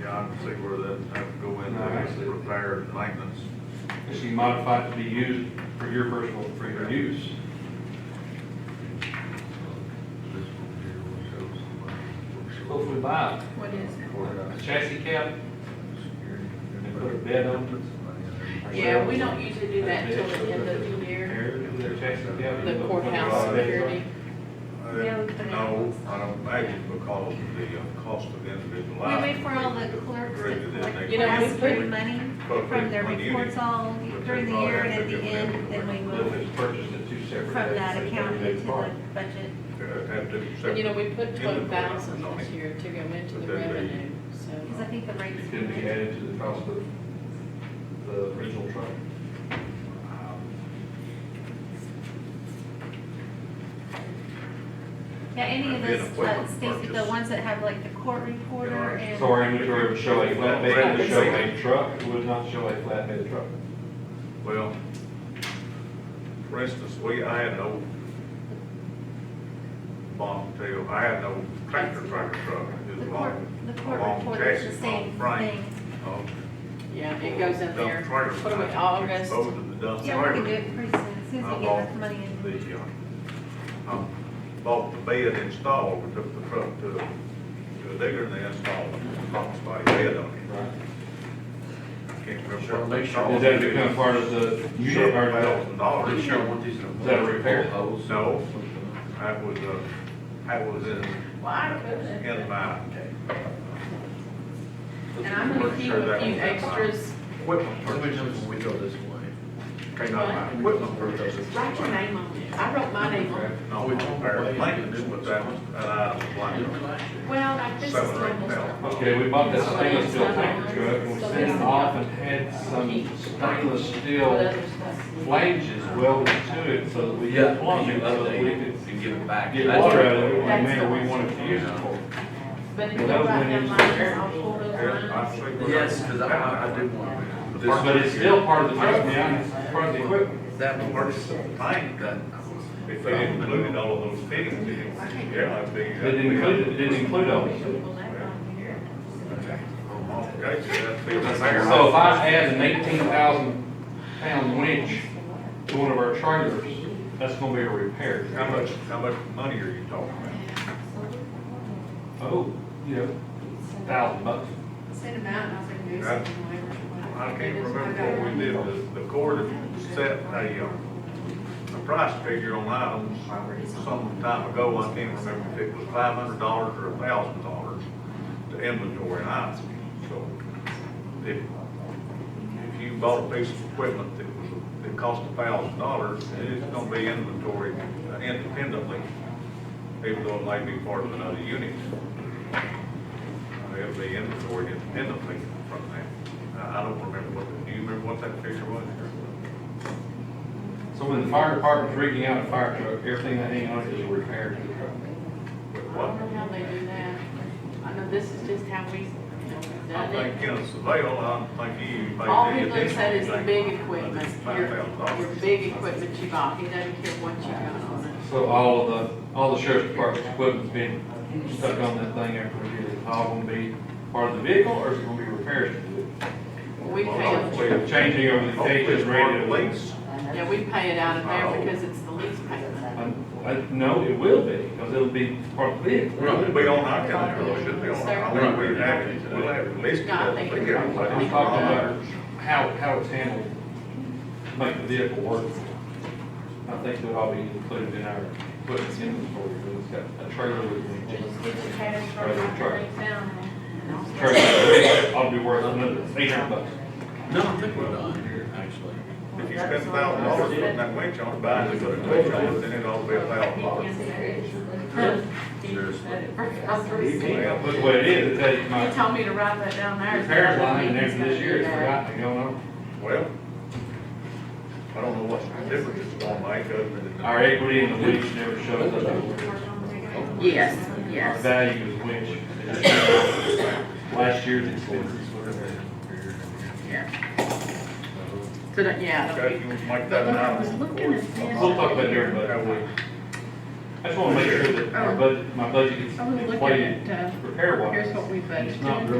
Yeah, I can see where that, I would go in, I guess, repair and maintenance. If you modify it to be used for your personal, for your use. Hopefully buy uh, What is it? a chassis cab, and put a bed on it. Yeah, we don't usually do that till the end of the year, There, put a chassis cab. the courthouse security. Uh, Yeah, we put it No, on. I don't, maybe because of the uh, cost of individual We life. wait for all the clerks Greater than that they- collect You know, us we for put- money But from their when you- reports all but they during the probably year and have at to the do it end, then we every- If move it's purchased at two separate. from that dates, account they into the part. budget. Uh, Have to. And, You know, separate. we put In the twelve thousand courthouse. this year to go into But the then they- revenue, Because I so. think the rates. It could be added to the cost of the original truck. Um, Yeah, any of That'd be an this, uh, equipment Stacy, the purchase. ones that have like the court reporter Yeah, and. So our inventory would show a flatbed, would show a truck, it would not show a flatbed truck. Well, for instance, we, I had no bomb tail, I had no tractor, tractor truck. It The was court, long- the a court long reporter is chassis, the same long frame. thing. Oh, Yeah, it goes in dump there, trailer. what do we, August? Exposed to the dump Yeah, we can do trailer. it pretty soon, as soon as I we get enough bought money in. The, uh, um, bought the bed installed, we took the truck to, to a digger and they installed a box body bed on it. Right. I can't remember. Sure, what make it's sure- called. Does that become part of the unit Sure, or thousand I'm dollars. pretty sure I want these in a. Is that a repair? Hose. No, I was, uh, I was in, Why couldn't it? in my And I'm gonna keep a few extras, Equipment purchase. when we go this way. Right now, my equipment purchases. write your name on it, I wrote my name on it. No, uh, we don't bear blankets with that, uh, blanket. Well, like this is Seven or eight normal stuff. thousand. Okay, we bought this stainless steel tanker truck and we sent it off and had some stainless What steel other stuff? flanges welded to it so that we Yeah, could plumb it, so that we update could and give it back. get water out of it in the manner we wanted to use it for. But if you Well, write those went that into line, there. I'll pull those I lines. see where- Yes, because I, I do want. this But it's still part of the truck now, it's part of the equipment. That one Purchase works. of the tank, That. if they included all of those fittings, it was- yeah, I'd be. It didn't include, it didn't include all this. Pull that line here. Okay, so that'd be the fair. So if I add an eighteen thousand pound winch to one of our trailers, that's gonna be a repair. How much, how much money are you talking about? Oh, you know, thousand bucks. Send them out, and I was like, no, send Right. them away. I can't remember what we did, the, the court had set a, uh, a price figure on items some time ago, I can't remember if it was five hundred dollars or a thousand dollars to inventory an item, so if, if you bought a piece of equipment that was, that cost a thousand dollars, it's gonna be inventory independently, even though it may be part of another unit. It'll be inventory independently from that. I I don't remember what, do you remember what that figure was? So when the fire department's rigging out a fire truck, everything that ain't on it is a repair to the truck. I don't What? know how they do that. I know this is just how we, you know, we've I done think it. Kenneth Savell, I don't think he paid. All the he looks at is the additional big thing, equipment, Five your, thousand dollars. your big equipment you bought, he doesn't care what you got on it. So all of the, all the sheriff's department's equipment's been stuck on that thing after we get it. All gonna be part of the vehicle or is it gonna be repairs to do? We pay them, We're changing over the Hopefully cages, it's part radio of the lease. yeah, we pay it out of Oh. there because it's the lease payment. No, it will be, because it'll be part of the vehicle. We're It'll not- be on our calendar, it should be on Sir? our, I think we have, it- we'll have it listed. No, I think it's- Yeah, but I'm it's talking not- about how, how it's handled, make the vehicle work. I think that all be included in our equipment inventory, but it's got a trailer with winches. Just get your cash from Right, the right. lease down. Trailer, it ought to be worth another eight hundred bucks. No, I think we're done here, actually. If you spend a thousand dollars putting that winch on, buying it, putting a winch on it, then it ought to be a thousand dollars. Well, But what it is, it's that You my told me to write that down there. repair line, and after this year, it's forgotten, you know? Well, I don't know what difference it's gonna make other than. Our equity in the winch never shows up. Yes, Our yes. value of the winch. is just Last year's expenses, whatever. Yeah. So that, yeah. that'll Okay, be- you want to make that But an when I item was on the looking board? at this, We'll talk about it during budget. That way, I just wanna make sure that our budget, my budget is I was looking inflated at, uh, repair wise. here's what we budgeted. It's not really